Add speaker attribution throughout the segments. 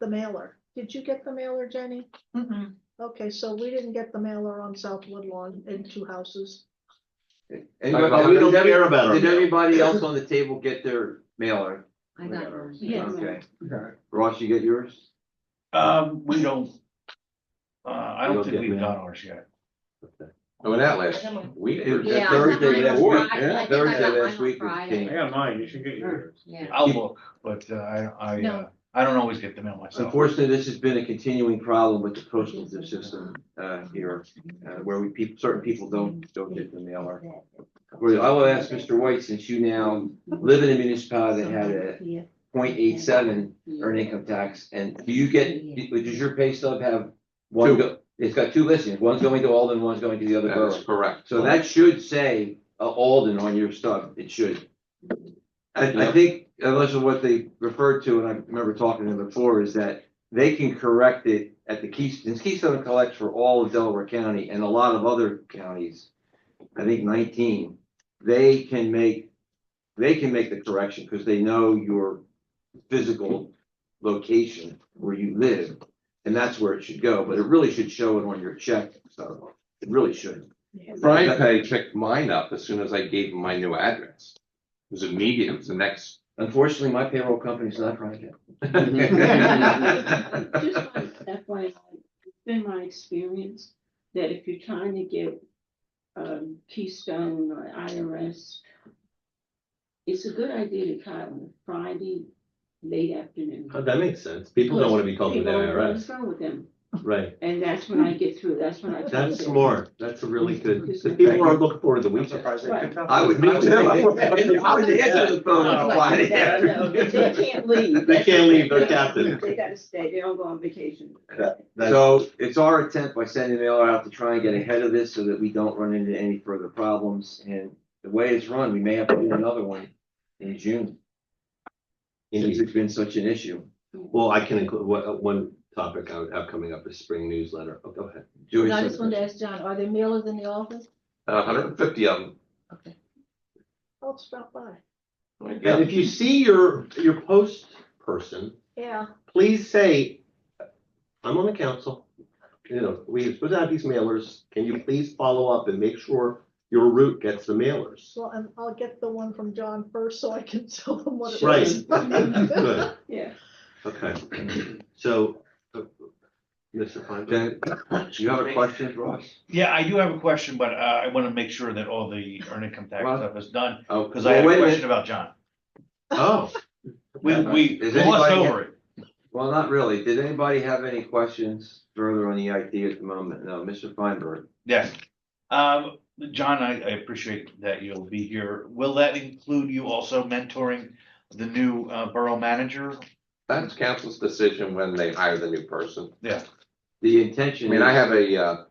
Speaker 1: the mailer. Did you get the mailer, Jenny?
Speaker 2: Mhm.
Speaker 1: Okay, so we didn't get the mailer on South Woodlawn in two houses.
Speaker 3: Anybody-
Speaker 4: But we don't
Speaker 3: did every-
Speaker 4: care about our
Speaker 3: Did
Speaker 4: mail.
Speaker 3: everybody else on the table get their mailer?
Speaker 2: I got yours.
Speaker 1: Yes.
Speaker 3: Okay.
Speaker 5: Okay.
Speaker 3: Ross, you get yours?
Speaker 6: Um, we don't. Uh, I
Speaker 3: You don't
Speaker 6: don't think
Speaker 3: get
Speaker 6: we've
Speaker 3: mail?
Speaker 6: got ours yet.
Speaker 4: Oh, that last week.
Speaker 3: It was
Speaker 2: Yeah, I
Speaker 3: Thursday
Speaker 2: got
Speaker 3: last
Speaker 2: mine on
Speaker 3: week.
Speaker 2: Friday. I think I
Speaker 3: Thursday
Speaker 2: got mine
Speaker 3: last
Speaker 2: on
Speaker 3: week it
Speaker 2: Friday.
Speaker 5: I
Speaker 3: came.
Speaker 5: got mine, you should get
Speaker 3: Mm.
Speaker 5: yours.
Speaker 2: Yeah.
Speaker 6: I'll look, but uh, I, I, uh,
Speaker 2: No.
Speaker 6: I don't always get the mail myself.
Speaker 3: Unfortunately, this has been a continuing problem with the postal system uh, here, uh, where we, peop- certain people don't, don't get the mailer. Well, I will ask Mr. White, since you now live in a municipality that had a 0.87 earned income tax, and do you get, does your pay stub have one,
Speaker 4: Two.
Speaker 3: go- it's got two listings, one's going to Alden, one's going to the other
Speaker 4: That
Speaker 3: borough?
Speaker 4: is correct.
Speaker 3: So that should say uh, Alden on your stuff, it should. I, I think, unless of what they referred to, and I remember talking to them before, is that they can correct it at the Keystone, Keystone collects for all of Delaware County and a lot of other counties. I think nineteen, they can make, they can make the correction, because they know your physical location where you live. And that's where it should go, but it really should show it on your check, so it really should.
Speaker 4: Brian Pay picked mine up as soon as I gave him my new address. It was immediate, it was the next.
Speaker 3: Unfortunately, my payroll company's not private.
Speaker 7: Just by FYI, it's been my experience that if you're trying to get um Keystone or IRS, it's a good idea to call on Friday late afternoon.
Speaker 8: Oh, That makes sense. People don't want to be called an
Speaker 7: People don't know
Speaker 8: IRS,
Speaker 7: What's wrong with them?
Speaker 8: right?
Speaker 7: And that's when I get through, that's when I. tell
Speaker 8: That's
Speaker 7: them.
Speaker 8: smart. That's a really good, because people are looking forward to the
Speaker 5: I'm
Speaker 8: weekend.
Speaker 5: surprised they picked up.
Speaker 3: I would, I would, I would answer the phone on Friday
Speaker 7: No, no, They
Speaker 3: afternoon.
Speaker 7: can't leave.
Speaker 8: They can't leave, they're captive.
Speaker 7: They gotta stay, they don't go on vacation.
Speaker 3: So it's our attempt by sending mail out to try and get ahead of this so that we don't run into any further problems. And the way it's run, we may have to do another one in June, since
Speaker 8: Indeed.
Speaker 3: it's been such an issue.
Speaker 8: Well, I can include, what, one topic I would have coming up is spring newsletter. Oh, go ahead.
Speaker 3: Joyce,
Speaker 2: And I just wanted to ask John, are there mailers in the office?
Speaker 4: hundred and fifty of them.
Speaker 2: Okay.
Speaker 1: I'll stop by.
Speaker 8: And if you see your, your post person,
Speaker 1: Yeah,
Speaker 8: please say, I'm on the council. You know, we put out these mailers. Can you please follow up and make sure your route gets the mailers?
Speaker 1: well, and I'll get the one from John first so I can tell them what it
Speaker 8: Right.
Speaker 1: is.
Speaker 8: Good.
Speaker 7: Yeah.
Speaker 8: Okay. So, uh, Mr. Feinberg?
Speaker 3: Jen, you have a question, Ross?
Speaker 6: Yeah, I do have a question, but uh, I want to make sure that all the earned income tax
Speaker 3: Well-
Speaker 6: stuff is done,
Speaker 3: Oh,
Speaker 6: because I had a
Speaker 3: wait
Speaker 6: question
Speaker 3: minute.
Speaker 6: about John.
Speaker 8: Oh.
Speaker 6: We, we
Speaker 3: Does
Speaker 6: glossed
Speaker 3: anybody-
Speaker 6: over it.
Speaker 3: Well, not really. Did anybody have any questions further on the IT at the moment? No, Mr. Feinberg?
Speaker 6: Yes. Um, John, I, I appreciate that you'll be here. Will that include you also mentoring the new uh, borough manager?
Speaker 4: That's council's decision when they hire the new person.
Speaker 3: The
Speaker 4: I
Speaker 3: intention.
Speaker 4: mean, I
Speaker 3: is-
Speaker 4: have a, uh,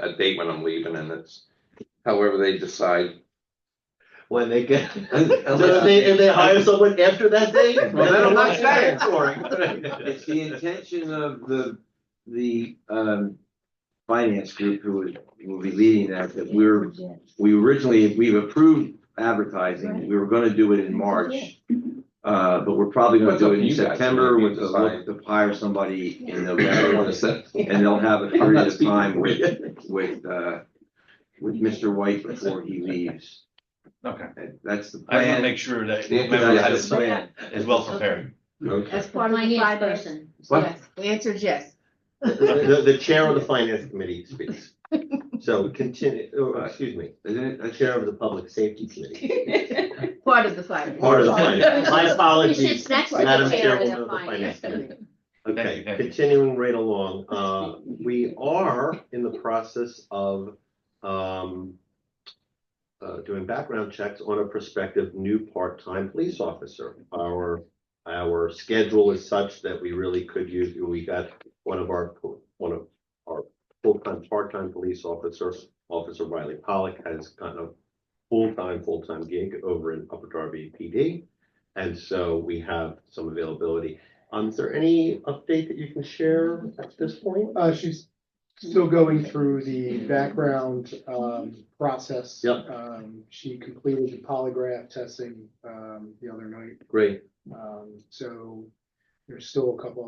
Speaker 4: a, a date when I'm leaving and it's however they decide.
Speaker 8: When they get,
Speaker 3: un-
Speaker 8: Unless
Speaker 3: unless-
Speaker 8: they, if they hire someone after that date,
Speaker 3: Well,
Speaker 8: then I'm not
Speaker 3: that's- It's
Speaker 8: mentoring.
Speaker 3: the intention of the, the, um, finance group who is- will be leading that, that we're, we originally, we've approved advertising. We were gonna do it in March. Uh, but we're probably gonna
Speaker 4: What's
Speaker 3: do
Speaker 4: up
Speaker 3: it
Speaker 4: to
Speaker 3: in
Speaker 4: you guys?
Speaker 3: September
Speaker 4: You
Speaker 3: with the,
Speaker 4: decide.
Speaker 3: to hire somebody in
Speaker 4: I don't
Speaker 3: November.
Speaker 4: wanna set-
Speaker 3: And they'll have a
Speaker 8: I'm
Speaker 3: period
Speaker 8: not
Speaker 3: of
Speaker 8: speaking
Speaker 3: time
Speaker 8: for
Speaker 3: with,
Speaker 8: you.
Speaker 3: with, uh, with Mr. White before he leaves.
Speaker 6: Okay,
Speaker 3: That- That's the
Speaker 6: I want to
Speaker 3: plan.
Speaker 6: make sure that
Speaker 4: Yeah,
Speaker 3: That's
Speaker 6: members
Speaker 3: the plan.
Speaker 6: is well prepared.
Speaker 8: Okay.
Speaker 2: As part of the five person.
Speaker 3: What?
Speaker 2: Yes, the answer is yes.
Speaker 8: The, the- the chair of the finance committee speaks. So continue, or, excuse me,
Speaker 3: Isn't it?
Speaker 8: the chair of the public safety committee,
Speaker 2: Part of the five.
Speaker 8: part of the finance, my
Speaker 2: He
Speaker 8: apologies.
Speaker 2: sits next to
Speaker 8: Madam
Speaker 2: the chair of
Speaker 8: Chairwoman
Speaker 2: the finance committee.
Speaker 8: Okay,
Speaker 6: Thank you.
Speaker 8: continuing right along, uh, we are in the process of, um, uh, doing background checks on a prospective new part-time police officer. Our, our schedule is such that we really could use, we got one of our, one of our full-time, part-time police officer, Officer Riley Pollock has gotten a full-time, full-time gig over in Upper Darby PD. And so we have some availability. Um, is there any update that you can share at this point?
Speaker 9: Uh, she's still going through the background, um, process.
Speaker 8: Yep.
Speaker 9: Um, she completed the polygraph testing, um, the other night.
Speaker 8: Great.
Speaker 9: Um, so there's still a couple of